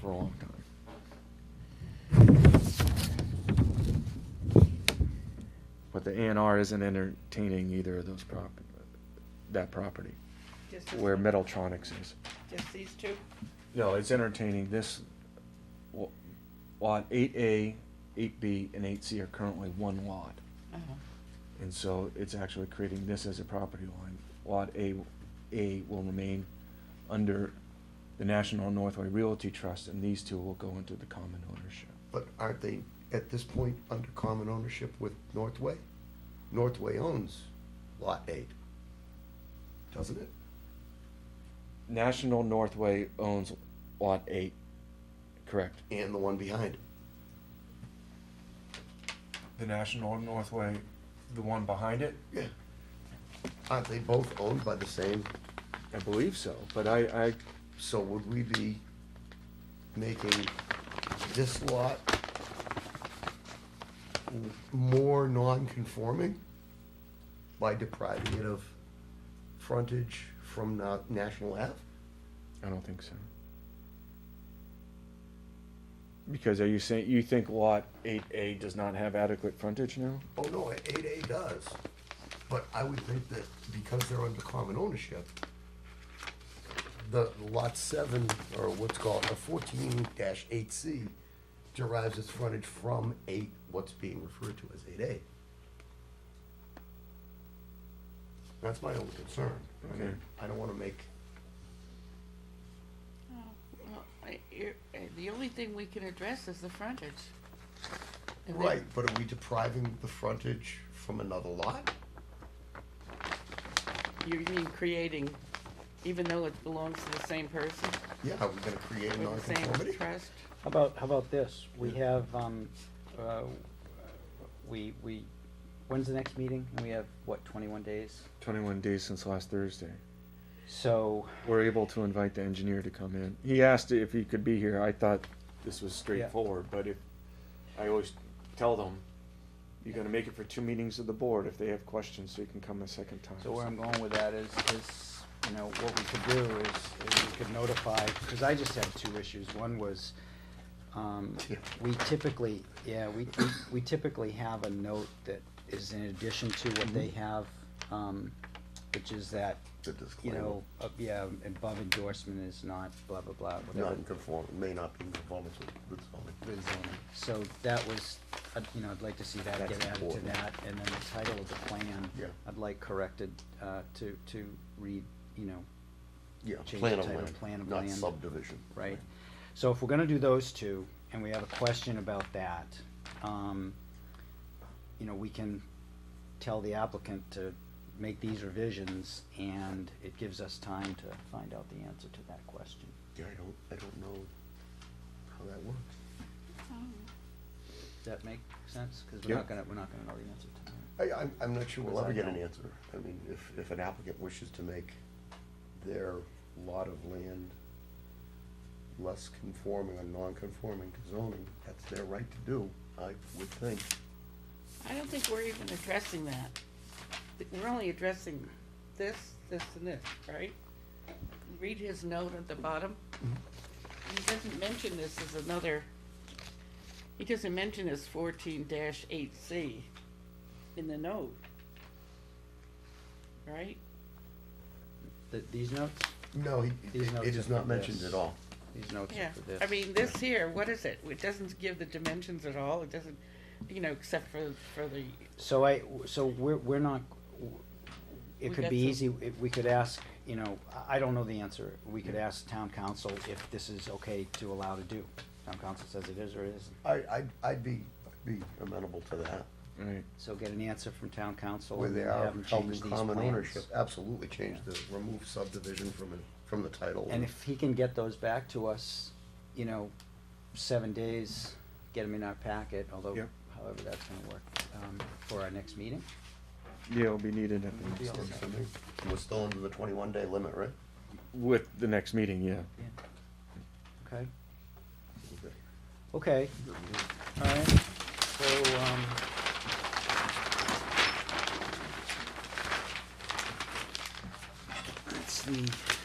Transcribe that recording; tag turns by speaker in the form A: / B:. A: for a long time. But the ANR isn't entertaining either of those prop, that property,
B: Just this
A: where
B: one?
A: Metaltronics is.
B: Just these two?
A: No, it's entertaining this, wa- lot eight A, eight B, and eight C are currently one lot.
B: Uh-huh.
A: And so it's actually creating this as a property line. Lot A, A will remain under the National Northway Realty Trust, and these two will go into the common ownership.
C: But aren't they, at this point, under common ownership with Northway? Northway owns Lot 8, doesn't it?
A: National Northway owns Lot Eight, correct?
C: And the one behind it.
A: The National Northway, the one behind it?
C: Yeah. Aren't they both owned by the same?
A: I believe so, but I, I,
C: So would we be making this lot m- more non-conforming by depriving it of frontage from Na- National Ave?
A: I don't think so. Because are you saying, you think Lot Eight A does not have adequate frontage now?
C: Oh, no, eight A does, but I would think that because they're under common ownership, the lot seven, or what's called a fourteen eight C derives its frontage from eight, what's being referred to as eight A. That's my only concern. I mean,
A: Okay.
C: I don't wanna make,
B: Oh, well, I- you're- uh, The only thing we can address is the frontage. And then-
C: right, but are we depriving the frontage from another lot?
B: You mean creating, even though it belongs to the same person,
C: Yeah, are we gonna create a
B: with the same
C: nonconformity?
B: trust?
D: How about, how about this? We have, um, uh, we, we, when's the next meeting? And we have, what, twenty-one days?
A: Twenty-one days since last Thursday.
D: So,
A: We're able to invite the engineer to come in. He asked if he could be here. I thought this was straightforward, but if, I always tell them, you're gonna make it for two meetings of the board if they have questions, so you can come a second time.
D: so where I'm going with that is, is, you know, what we could do is, is we could notify, because I just had two issues. One was, um, we typically, yeah, we, we- we typically have a note that is in addition to what they have, um, which is that,
C: The
D: you
C: disclaimer.
D: know, uh, yeah, above endorsement is not blah, blah, blah, whatever.
C: non-conform, may not be in conformance with- with zoning.
D: with zoning. So that was, uh, you know, I'd like to see that
C: That's
D: get added to
C: important.
D: that, and then the title of the plan.
C: Yeah.
D: I'd like corrected, uh, to, to read, you know,
C: Yeah,
D: Change
C: plan
D: the
C: of
D: title,
C: land,
D: plan of
C: not
D: land.
C: subdivision.
D: right? So if we're gonna do those two, and we have a question about that, um, you know, we can tell the applicant to make these revisions, and it gives us time to find out the answer to that question.
C: Yeah, I don't, I don't know how that works.
D: Does that make sense? Cause we're not
A: Yeah.
D: gonna, we're not gonna know the answer tonight.
C: I, I'm, I'm not sure we'll
D: Because
C: ever
D: I
C: get an
D: don't-
C: answer. I mean, if, if an applicant wishes to make their lot of land less conforming or non-conforming to zoning, that's their right to do, I would think.
B: I don't think we're even addressing that. Th- We're only addressing this, this, and this, right? Read his note at the bottom. He doesn't mention this as another, he doesn't mention this fourteen eight C in the note. Right?
D: Th these notes,
C: No, he-
D: These
C: it
D: notes
C: is
D: are
C: not
D: for
C: mentioned
D: this.
C: at all.
D: these notes
B: Yeah,
D: are for this.
B: I mean, this here, what is it? It doesn't give the dimensions at all, it doesn't, you know, except for, for the,
D: So I, so we're, we're not,
B: We
D: it could
B: got
D: be
B: some-
D: easy, if we could ask, you know, I- I don't know the answer. We could ask town council if this is okay to allow to do. Town council says it is or it isn't.
C: I, I'd, I'd be, I'd be amenable to that.
A: Right.
D: So get an answer from town council
C: Where
D: and
C: they
D: then
C: are
D: have them
C: held
D: change
C: in
D: these
C: common ownership,
D: plans.
C: absolutely change the, remove subdivision from, it- from the title.
D: And if he can get those back to us, you know, seven days, get them in our packet, although
A: Yeah.
D: however that's gonna work, um, for our next meeting.
A: Yeah, it'll be needed at the
C: Yeah,
A: next,
C: it's something. We're still under the twenty-one day limit, right?
A: with the next meeting, yeah.
D: Okay, okay. Alright, so, um. That's uh, the